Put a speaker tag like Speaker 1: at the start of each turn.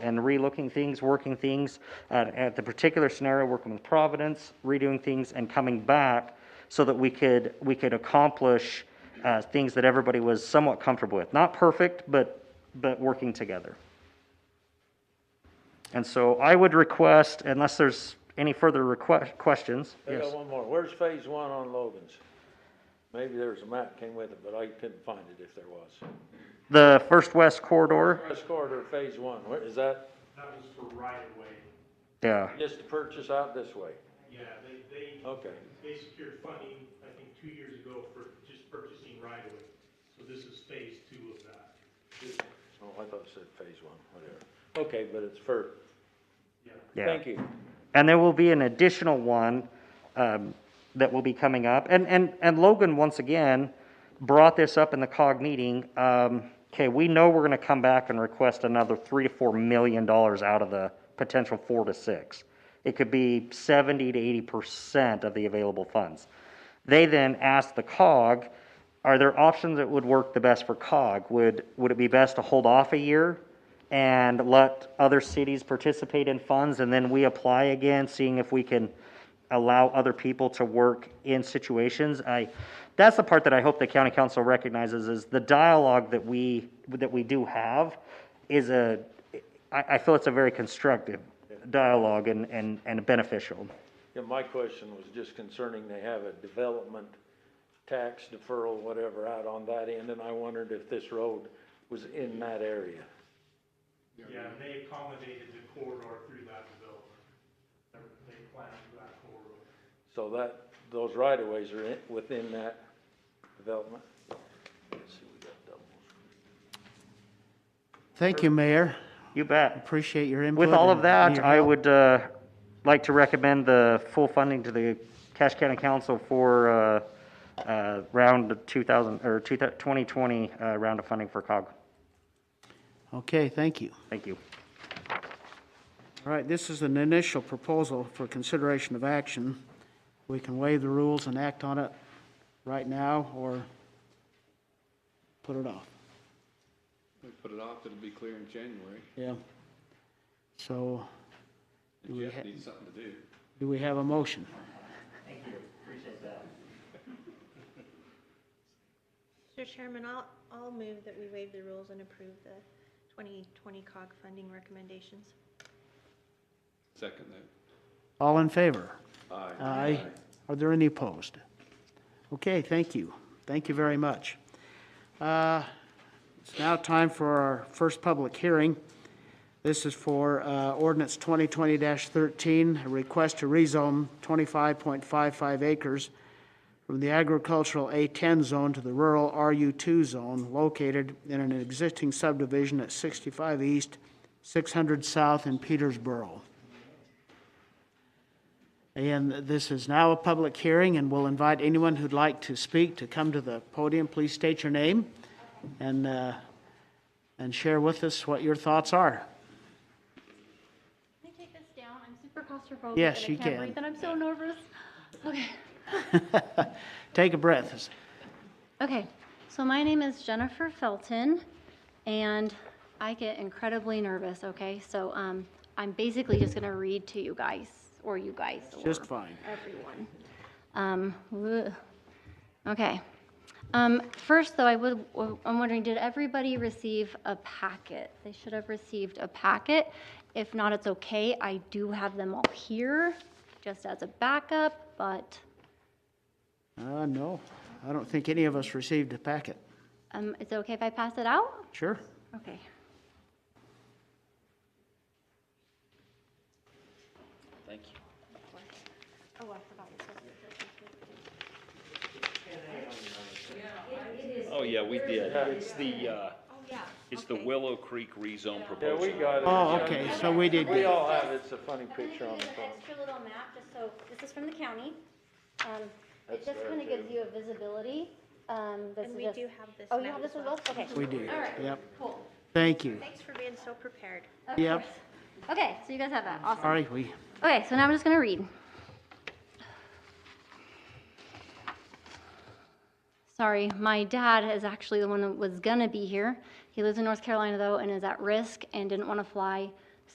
Speaker 1: and relooking things, working things at, at the particular scenario, working with Providence, redoing things and coming back so that we could, we could accomplish uh, things that everybody was somewhat comfortable with. Not perfect, but, but working together. And so I would request, unless there's any further request, questions.
Speaker 2: I
Speaker 1: Yes.
Speaker 2: got one more. Where's phase one on Logan's? Maybe there was a map came with it, but I couldn't find it if there was.
Speaker 1: The First West Corridor,
Speaker 2: Press corridor, phase one, where, is that
Speaker 3: That was for right of way.
Speaker 1: yeah.
Speaker 2: just to purchase out this way?
Speaker 3: Yeah, they, they,
Speaker 2: Okay.
Speaker 3: they secured funding, I think, two years ago for just purchasing right of way. So this is phase two of that. This-
Speaker 2: Oh, I thought it said phase one, whatever. Okay, but it's for,
Speaker 3: Yeah.
Speaker 1: yeah.
Speaker 2: thank you.
Speaker 1: And there will be an additional one um, that will be coming up. And, and, and Logan, once again, brought this up in the COG meeting. Um, Okay, we know we're going to come back and request another three to four million dollars out of the potential four to six. It could be 70 to 80 percent of the available funds. They then asked the COG, are there options that would work the best for COG? Would, would it be best to hold off a year and let other cities participate in funds, and then we apply again, seeing if we can allow other people to work in situations. I, that's the part that I hope the county council recognizes, is the dialogue that we, that we do have is a, I, I feel it's a very constructive dialogue and, and, and beneficial.
Speaker 2: Yeah, my question was just concerning, they have a development tax deferral, whatever, out on that end, and I wondered if this road was in that area.
Speaker 3: Yeah, and they accommodated the corridor through that development. They- They planned for that corridor.
Speaker 2: So that, those right of ways are in, within that development. Let's see, we got doubles.
Speaker 4: Thank you, Mayor.
Speaker 1: You bet.
Speaker 4: Appreciate your input.
Speaker 1: With all of
Speaker 4: and
Speaker 1: that,
Speaker 4: your
Speaker 1: I
Speaker 4: help.
Speaker 1: would uh, like to recommend the full funding to the Cache County Council for uh, uh, round of 2000, or 2020 uh, round of funding for COG.
Speaker 4: Okay, thank you.
Speaker 1: Thank you.
Speaker 4: All right, this is an initial proposal for consideration of action. We can waive the rules and act on it right now or put it off.
Speaker 5: We put it off, it'll be clear in January.
Speaker 4: Yeah. So
Speaker 5: And
Speaker 4: we ha-
Speaker 5: Jeff needs something to do.
Speaker 4: do we have a motion?
Speaker 6: Mr. Chairman, I'll, I'll move that we waive the rules and approve the 2020 COG funding recommendations.
Speaker 5: Second that.
Speaker 4: All in favor?
Speaker 5: Aye.
Speaker 4: Aye. Are there any opposed? Okay, thank you. Thank you very much. Uh, It's now time for our first public hearing. This is for uh, ordinance 2020-13, a request to rezone 25.55 acres from the agricultural A10 zone to the rural RU2 zone located in an existing subdivision at 65 East, 600 South in Petersboro. And this is now a public hearing, and we'll invite anyone who'd like to speak to come to the podium. Please state your name and, uh, and share with us what your thoughts are.
Speaker 7: Can I take this down? I'm super claustrophobic.
Speaker 4: Yes,
Speaker 7: and
Speaker 4: you
Speaker 7: I can't
Speaker 4: can.
Speaker 7: breathe, and I'm so nervous. Okay.
Speaker 4: Take a breath.
Speaker 7: Okay, so my name is Jennifer Felton, and I get incredibly nervous, okay? So um, I'm basically just going to read to you guys, or you guys, or
Speaker 4: Just fine.
Speaker 7: everyone. Um, ugh. Okay. Um, First, though, I would, I'm wondering, did everybody receive a packet? They should have received a packet. If not, it's okay. I do have them all here, just as a backup, but
Speaker 4: Uh, no, I don't think any of us received a packet.
Speaker 7: um, it's okay if I pass it out?
Speaker 4: Sure?
Speaker 7: Okay. Thank you. Oh, I forgot. this was-
Speaker 8: Oh, yeah, we did. It's the, uh, it's the
Speaker 7: okay.
Speaker 8: Willow Creek rezone
Speaker 2: Yeah,
Speaker 8: proposal.
Speaker 2: we got it.
Speaker 4: Oh, okay, so we did,
Speaker 2: We
Speaker 4: get-
Speaker 2: all have, it's a funny
Speaker 7: I'm
Speaker 2: picture
Speaker 7: gonna
Speaker 2: on
Speaker 7: give
Speaker 2: the
Speaker 7: you an
Speaker 2: phone.
Speaker 7: extra little map, just so, this is from the county. Um,
Speaker 2: That's
Speaker 7: It just
Speaker 2: there,
Speaker 7: kind of gives
Speaker 2: too.
Speaker 7: you a visibility. Um, this
Speaker 6: And
Speaker 7: is
Speaker 6: we
Speaker 7: just-
Speaker 6: do have this
Speaker 7: Oh, you
Speaker 6: map
Speaker 7: have this
Speaker 6: as
Speaker 7: as
Speaker 6: well.
Speaker 7: well? Okay.
Speaker 4: we did.
Speaker 7: All right.
Speaker 4: Yep,
Speaker 7: Cool.
Speaker 4: thank you.
Speaker 6: Thanks for being so prepared.
Speaker 7: Of
Speaker 4: Yep.
Speaker 7: course. Okay, so you guys have that. Awesome.
Speaker 4: All right, we,
Speaker 7: Okay, so now I'm just going to read. Sorry, my dad is actually the one that was going to be here. He lives in North Carolina, though, and is at risk and didn't want to fly